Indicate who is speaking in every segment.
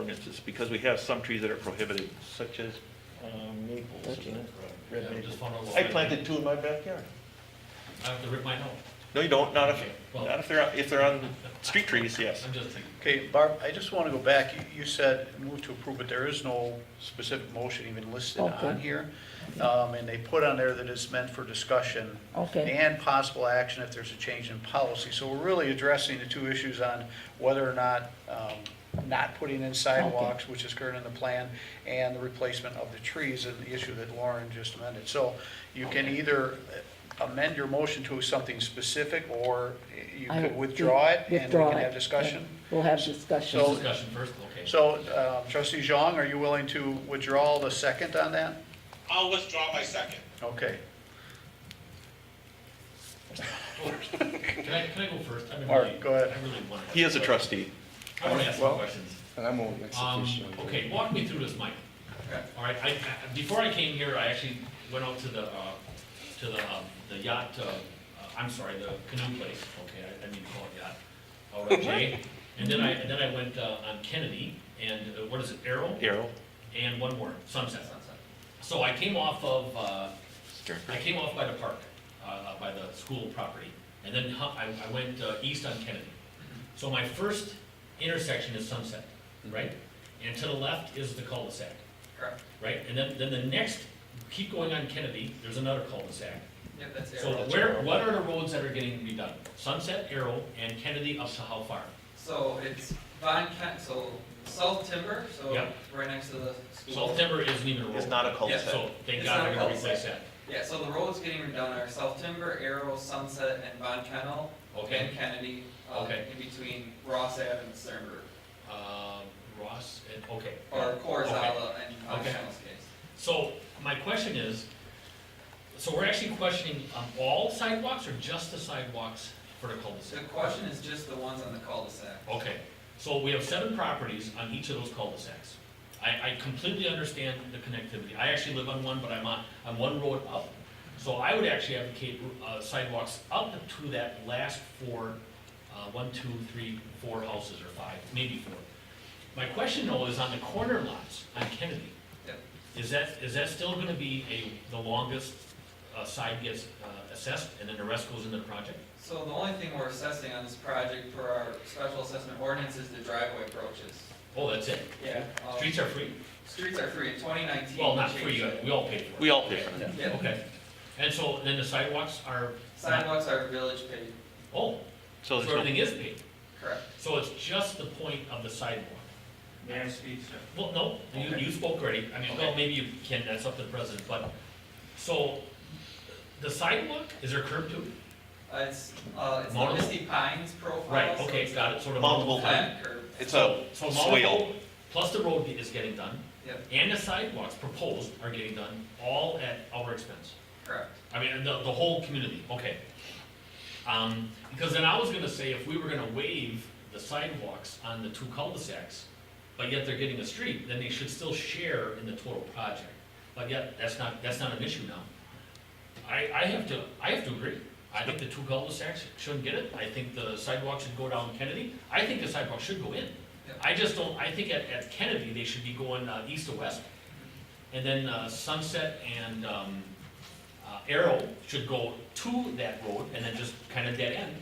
Speaker 1: ordinances, because we have some trees that are prohibited, such as um, maples, isn't it?
Speaker 2: Yeah,
Speaker 1: Red
Speaker 2: I'm
Speaker 1: maples.
Speaker 2: just wondering
Speaker 1: I
Speaker 2: why-
Speaker 1: planted two in my backyard.
Speaker 2: I have to rip mine out.
Speaker 1: No, you don't, not if,
Speaker 2: Okay, well-
Speaker 1: not if they're, if they're on street trees, yes.
Speaker 2: I'm just thinking.
Speaker 3: Okay, Barb, I just want to go back. You- You said move to approve, but there is no specific motion even listed on
Speaker 4: Okay.
Speaker 3: here. Um, And they put on there that it's meant for discussion.
Speaker 4: Okay.
Speaker 3: And possible action if there's a change in policy. So we're really addressing the two issues on whether or not, um, not putting in sidewalks, which is current in the plan, and the replacement of the trees and the issue that Lauren just amended. So you can either uh, amend your motion to something specific, or you
Speaker 4: I-
Speaker 3: could withdraw it and we
Speaker 4: withdraw
Speaker 3: can
Speaker 4: it.
Speaker 3: have discussion.
Speaker 4: We'll have discussion.
Speaker 3: So-
Speaker 2: Discussion first, okay.
Speaker 3: So um, trustee Zhang, are you willing to withdraw the second on that?
Speaker 5: I'll withdraw my second.
Speaker 3: Okay.
Speaker 2: Can I, can I go first? I mean,
Speaker 3: Mark,
Speaker 2: really-
Speaker 3: go ahead.
Speaker 2: I really want to.
Speaker 1: He is a trustee.
Speaker 2: I want to ask some
Speaker 3: Well-
Speaker 2: questions.
Speaker 6: And I'm on
Speaker 2: Um,
Speaker 6: execution.
Speaker 2: okay, walk me through this, Mike. All right, I, I- before I came here, I actually went out to the, uh, to the, um, the yacht, uh, uh, I'm sorry, the canoe place, okay, I, I mean, call it yacht, out on Jay. And then I, and then I went, uh, on Kennedy, and uh, what is it, Arrow?
Speaker 1: Arrow.
Speaker 2: And one more, Sunset. So I came off of, uh, I came off by the park, uh, uh, by the school property, and then hu- I, I went uh, east on Kennedy. So my first intersection is Sunset,
Speaker 1: Mm-hmm.
Speaker 2: right? And to the left is the cul-de-sac.
Speaker 7: Correct.
Speaker 2: Right, and then, then the next, keep going on Kennedy, there's another cul-de-sac.
Speaker 7: Yep, that's
Speaker 2: So
Speaker 7: arrow.
Speaker 2: where, what are the roads that are getting to be done? Sunset, Arrow, and Kennedy up to how far?
Speaker 7: So it's Von Kent, so South Timber, so
Speaker 2: Yeah.
Speaker 7: right next to the school.
Speaker 2: South Denver isn't even a road.
Speaker 1: It's not a
Speaker 7: cul-de-sac.
Speaker 1: cul-de-sac.
Speaker 2: So thank
Speaker 7: It's
Speaker 2: God
Speaker 7: not
Speaker 2: they're
Speaker 7: a
Speaker 2: gonna
Speaker 7: cul-de-sac.
Speaker 2: replace that.
Speaker 7: Yeah, so the roads getting redone are South Timber, Arrow, Sunset, and Von Kennel,
Speaker 2: Okay,
Speaker 7: and Kennedy, uh,
Speaker 2: Okay.
Speaker 7: in between Ross Ave and Sternberg,
Speaker 2: um, Ross, and, okay.
Speaker 7: or
Speaker 2: Okay.
Speaker 7: Corzala and Von
Speaker 2: Okay.
Speaker 7: Kennel's case.
Speaker 2: So my question is, so we're actually questioning um, all sidewalks or just the sidewalks for the
Speaker 7: So
Speaker 2: cul-de-sac?
Speaker 7: The question is just the ones on the cul-de-sac.
Speaker 2: Okay, so we have seven properties on each of those cul-de-sacs. I, I completely understand the connectivity. I actually live on one, but I'm on, I'm one road up. So I would actually advocate uh, sidewalks up to that last four, uh, one, two, three, four houses or five, maybe four. My question though is on the corner lots on Kennedy.
Speaker 7: Yep.
Speaker 2: Is that, is that still gonna be a, the longest uh, side gets uh, assessed and then the rest goes into the project?
Speaker 7: So the only thing we're assessing on this project for our special assessment ordinance is the driveway approaches.
Speaker 2: Oh, that's it?
Speaker 7: Yeah. um,
Speaker 2: Streets are free?
Speaker 7: Streets are free in twenty nineteen.
Speaker 2: Well, not free, uh, we all pay for it.
Speaker 1: We all pay for it.
Speaker 7: Yeah.
Speaker 2: Okay, and so then the sidewalks are,
Speaker 7: Sidewalks are village paved,
Speaker 2: oh,
Speaker 1: So
Speaker 2: so
Speaker 1: there's no,
Speaker 2: everything is paved,
Speaker 7: correct.
Speaker 2: so it's just the point of the sidewalk? Well, no, you, you spoke already, I mean, well, maybe you can, that's up to the president, but, so, the sidewalk, is there curb to? it?
Speaker 7: Uh, It's, uh, it's the
Speaker 2: Multiple?
Speaker 7: Misty Pines profile.
Speaker 2: Right,
Speaker 7: so
Speaker 2: okay,
Speaker 7: it's
Speaker 2: got it, sort of.
Speaker 1: Multiple.
Speaker 7: Flat curve,
Speaker 1: it's a
Speaker 2: So
Speaker 1: swale.
Speaker 2: multiple, plus the road is getting done,
Speaker 7: yep,
Speaker 2: and the sidewalks proposed are getting done, all at our expense.
Speaker 7: correct.
Speaker 2: I mean, the, the whole community, okay. Um, because then I was gonna say, if we were gonna waive the sidewalks on the two cul-de-sacs, but yet they're getting a street, then they should still share in the total project. But yet, that's not, that's not an issue now. I, I have to, I have to agree. I think the two cul-de-sacs shouldn't get it. I think the sidewalk should go down Kennedy. I think the sidewalk should go in.
Speaker 7: Yeah.
Speaker 2: I just don't, I think at, at Kennedy, they should be going, uh, east to west. And then, uh, Sunset and, um, uh, Arrow should go to that road and then just kind of dead end.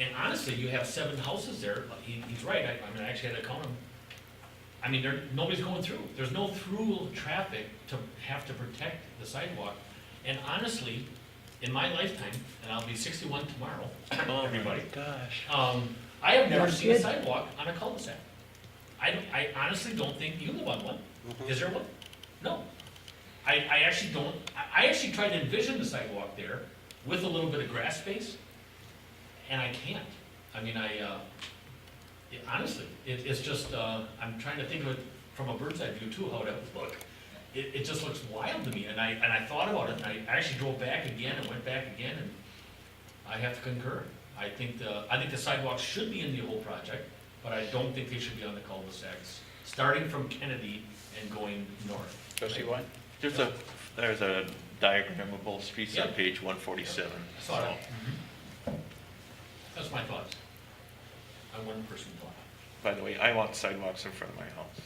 Speaker 2: And honestly, you have seven houses there, but he, he's right, I, I mean, I actually had to count them. I mean, there, nobody's going through, there's no through traffic to have to protect the sidewalk. And honestly, in my lifetime, and I'll be sixty-one tomorrow,
Speaker 1: Oh, my
Speaker 2: everybody,
Speaker 1: gosh.
Speaker 2: um, I have never
Speaker 4: That's
Speaker 2: seen a
Speaker 4: good.
Speaker 2: sidewalk on a cul-de-sac. I, don't- I honestly don't think you live on one. Is there one? No. I, I actually don't, I, I actually tried to envision the sidewalk there with a little bit of grass space, and I can't. I mean, I, uh, it- honestly, it, it's just, uh, I'm trying to think of it from a bird's eye view too, how it would look. It, it just looks wild to me, and I, and I thought about it, and I actually drove back again and went back again, and I have to concur. I think the, I think the sidewalks should be in the whole project, but I don't think they should be on the cul-de-sacs, starting from Kennedy and going north.
Speaker 3: Trustee White?
Speaker 1: There's a, there's a diagram of both streets on
Speaker 2: Yeah.
Speaker 1: page one forty-seven.
Speaker 2: I saw it all. That's my thoughts. I'm one person thought.
Speaker 1: By the way, I want sidewalks in front of my house.